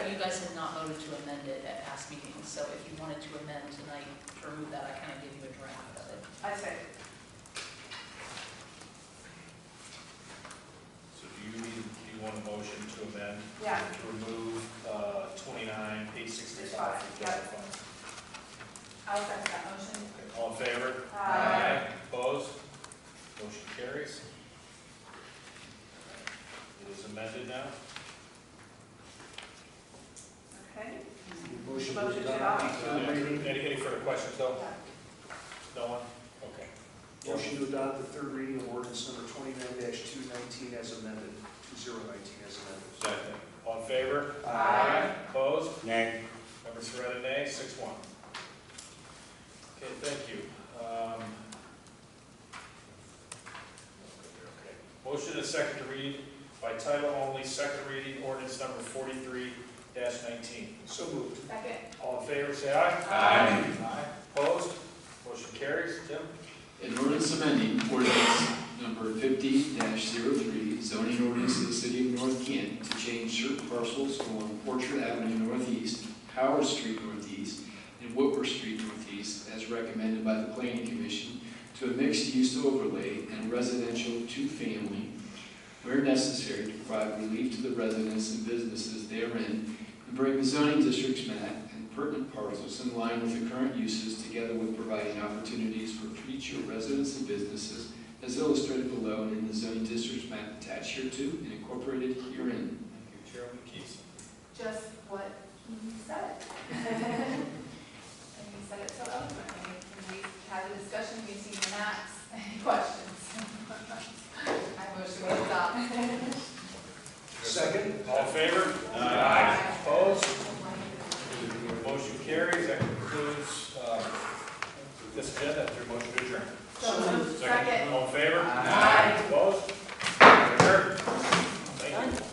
not voted to amend it at past meetings, so if you wanted to amend tonight, to remove that, I kind of gave you a draft of it. I say, So do you need, do you want a motion to amend? Yeah. To remove uh, twenty-nine, page sixty-five from the general fund? I'll second that motion. Okay, All in favor? Aye. Opposed? Motion carries. It is amended now. Okay, Motion Motion was to done. adopt. Uh, Any, maybe. any further questions though? No one? Okay. Motion to adopt the third reading of ordinance number twenty-nine two nineteen as amended, two zero nineteen as amended. Second. All in favor? Aye. Opposed? Nay. Member Serena, nay, six one. Okay, thank you. Um, okay. Motion is second to read by title only, second reading, ordinance number forty-three nineteen. So moved. second. All in favor, say aye. Aye. Aye. Opposed? Motion carries. Tim? An ordinance amending ordinance number fifty 3 zoning ordinance of the city of North Kent to change certain parcels along Orchard Avenue Northeast, Howard Street Northeast, and Whitworth Street Northeast, as recommended by the planning commission, to a mixed-use overlay and residential two-family where necessary to provide relief to the residents and businesses therein, and bring the zoning districts map and pertinent parcels in line with the current uses, together with providing opportunities for future residents and businesses, as illustrated below and in the zoning districts map attached hereto and incorporated herein. Thank you, Chairman Keith. Just what he said. And he said it so eloquently. And we had a discussion, we seen the maps, any questions? I motion to adopt. Second? All in favor? Aye. Opposed? Motion carries. That concludes, um, uh, this agenda. Is there a motion to adjourn? So moved. Second. All in favor? Aye.